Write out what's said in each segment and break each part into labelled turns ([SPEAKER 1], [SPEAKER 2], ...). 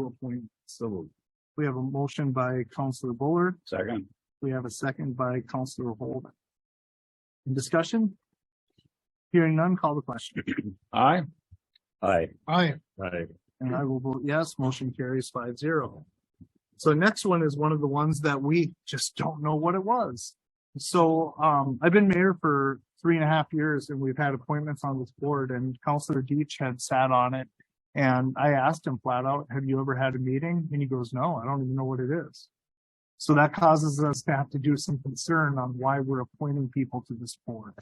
[SPEAKER 1] Four point, so we have a motion by Counselor Buller.
[SPEAKER 2] Second.
[SPEAKER 1] We have a second by Counselor Holden. In discussion? Hearing none, call the question.
[SPEAKER 2] Aye. Aye.
[SPEAKER 1] Aye.
[SPEAKER 2] Aye.
[SPEAKER 1] And I will vote yes, motion carries five zero. So next one is one of the ones that we just don't know what it was. So, um, I've been mayor for three and a half years and we've had appointments on this board and Counselor Deitch had sat on it. And I asked him flat out, have you ever had a meeting? And he goes, no, I don't even know what it is. So that causes us to have to do some concern on why we're appointing people to this board.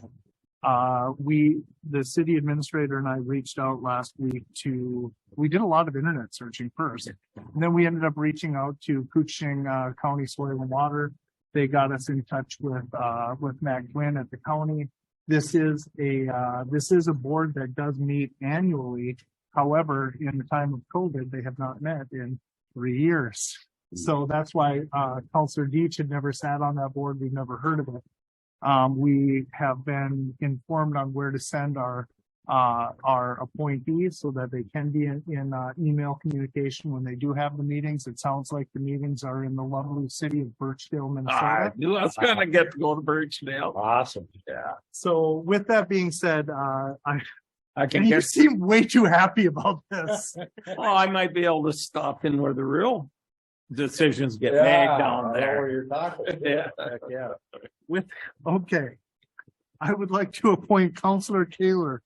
[SPEAKER 1] Uh, we, the city administrator and I reached out last week to we did a lot of internet searching first. And then we ended up reaching out to Kuching uh, County Soil and Water. They got us in touch with, uh, with Matt Gwynn at the county. This is a, uh, this is a board that does meet annually. However, in the time of COVID, they have not met in three years. So that's why, uh, Counselor Deitch had never sat on that board. We've never heard of it. Um, we have been informed on where to send our uh, our appointees so that they can be in, in, uh, email communication when they do have the meetings. It sounds like the meetings are in the lovely city of Birchdale,
[SPEAKER 2] I
[SPEAKER 1] Minnesota.
[SPEAKER 2] knew I was gonna get to go to Birchdale. Awesome. Yeah.
[SPEAKER 1] So with that being said, uh, I,
[SPEAKER 2] I
[SPEAKER 1] and
[SPEAKER 2] can
[SPEAKER 1] you
[SPEAKER 2] get,
[SPEAKER 1] seem way too happy about this.
[SPEAKER 2] oh, I might be able to stop in where the real decisions get made down there.
[SPEAKER 3] you're talking.
[SPEAKER 2] Yeah.
[SPEAKER 3] Yeah.
[SPEAKER 1] Okay. I would like to appoint Counselor Taylor,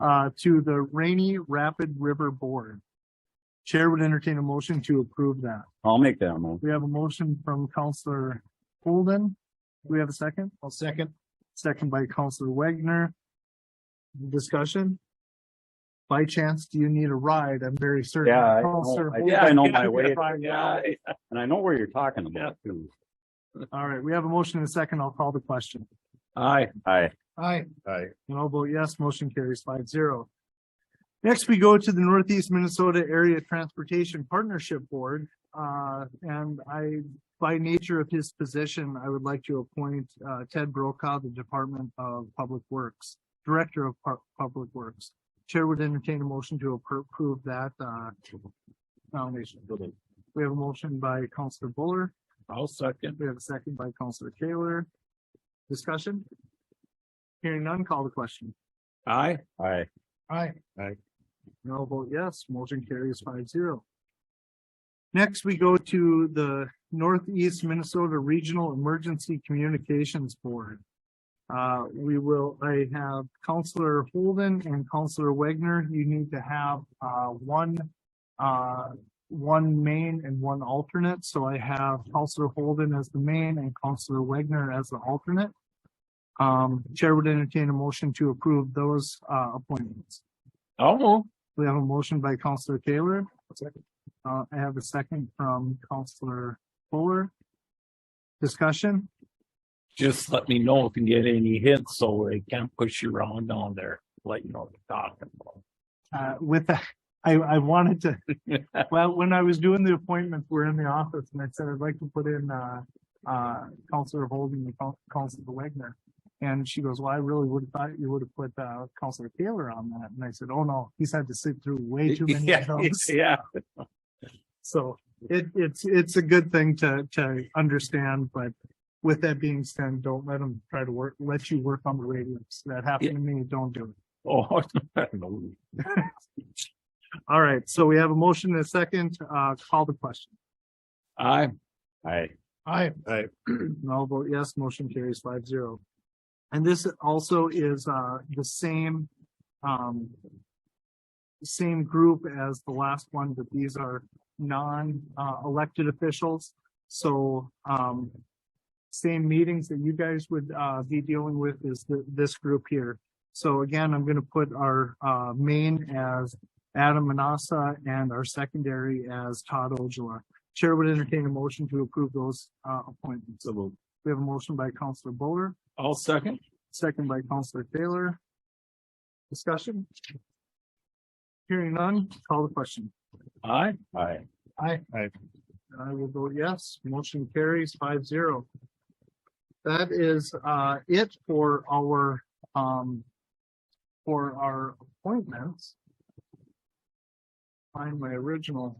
[SPEAKER 1] uh, to the Rainy Rapid River Board. Chair would entertain a motion to approve that.
[SPEAKER 2] I'll make that move.
[SPEAKER 1] We have a motion from Counselor Holden. Do we have a second? I'll second. Second by Counselor Wagner. Discussion? By chance, do you need a ride? I'm very certain.
[SPEAKER 3] Yeah, I know.
[SPEAKER 1] Counselor
[SPEAKER 3] I
[SPEAKER 1] Holden-
[SPEAKER 3] think
[SPEAKER 2] Yeah, I know my
[SPEAKER 1] Yeah,
[SPEAKER 2] way.
[SPEAKER 1] right now.
[SPEAKER 2] Yeah.
[SPEAKER 3] And I know where you're talking about too.
[SPEAKER 1] All right, we have a motion and a second. I'll call the question.
[SPEAKER 2] Aye.
[SPEAKER 3] Aye.
[SPEAKER 1] Aye.
[SPEAKER 3] Aye.
[SPEAKER 1] And I'll vote yes, motion carries five zero. Next, we go to the Northeast Minnesota Area Transportation Partnership Board. Uh, and I, by nature of his position, I would like to appoint, uh, Ted Brokaw, the Department of Public Works, Director of Pu- Public Works. Chair would entertain a motion to appro- approve that, uh, nomination. We have a motion by Counselor Buller.
[SPEAKER 2] I'll second.
[SPEAKER 1] We have a second by Counselor Taylor. Discussion? Hearing none, call the question.
[SPEAKER 2] Aye.
[SPEAKER 3] Aye.
[SPEAKER 1] Aye.
[SPEAKER 3] Aye.
[SPEAKER 1] No vote yes, motion carries five zero. Next, we go to the Northeast Minnesota Regional Emergency Communications Board. Uh, we will, I have Counselor Holden and Counselor Wagner. You need to have, uh, one, uh, one main and one alternate. So I have Counselor Holden as the main and Counselor Wagner as the alternate. Um, Chair would entertain a motion to approve those, uh, appointments.
[SPEAKER 2] I'll move.
[SPEAKER 1] We have a motion by Counselor Taylor. Uh, I have a second from Counselor Fuller. Discussion?
[SPEAKER 2] Just let me know if you get any hints so they can't push you around down there, let you know what they're talking about.
[SPEAKER 1] Uh, with that, I, I wanted to, well, when I was doing the appointments, we're in the office and I said, I'd like to put in, uh, uh, Counselor Holden and Coun- Counselor Wagner. And she goes, well, I really would have thought you would have put, uh, Counselor Taylor on that. And I said, oh no, he's had to sit through way too many of
[SPEAKER 2] Yeah,
[SPEAKER 1] those.
[SPEAKER 2] Yeah.
[SPEAKER 1] So it, it's, it's a good thing to, to understand, but with that being said, don't let them try to work, let you work on the radios. That happened to me. Don't do it.
[SPEAKER 2] Oh, no.
[SPEAKER 1] All right. So we have a motion and a second. Uh, call the question.
[SPEAKER 2] Aye.
[SPEAKER 3] Aye.
[SPEAKER 1] Aye.
[SPEAKER 3] Aye.
[SPEAKER 1] And I'll vote yes, motion carries five zero. And this also is, uh, the same, um, same group as the last one, but these are non, uh, elected officials. So, um, same meetings that you guys would, uh, be dealing with is th- this group here. So again, I'm gonna put our, uh, main as Adam Manassa and our secondary as Todd Ojala. Chair would entertain a motion to approve those uh appointments. We have a motion by Counselor Bowler,
[SPEAKER 2] I'll second.
[SPEAKER 1] second by Counselor Taylor. Discussion? Hearing none, call the question.
[SPEAKER 2] Aye.
[SPEAKER 3] Aye.
[SPEAKER 1] Aye.
[SPEAKER 3] Aye.
[SPEAKER 1] And I will vote yes. Motion carries five zero. That is uh it for our um for our appointments. Find my original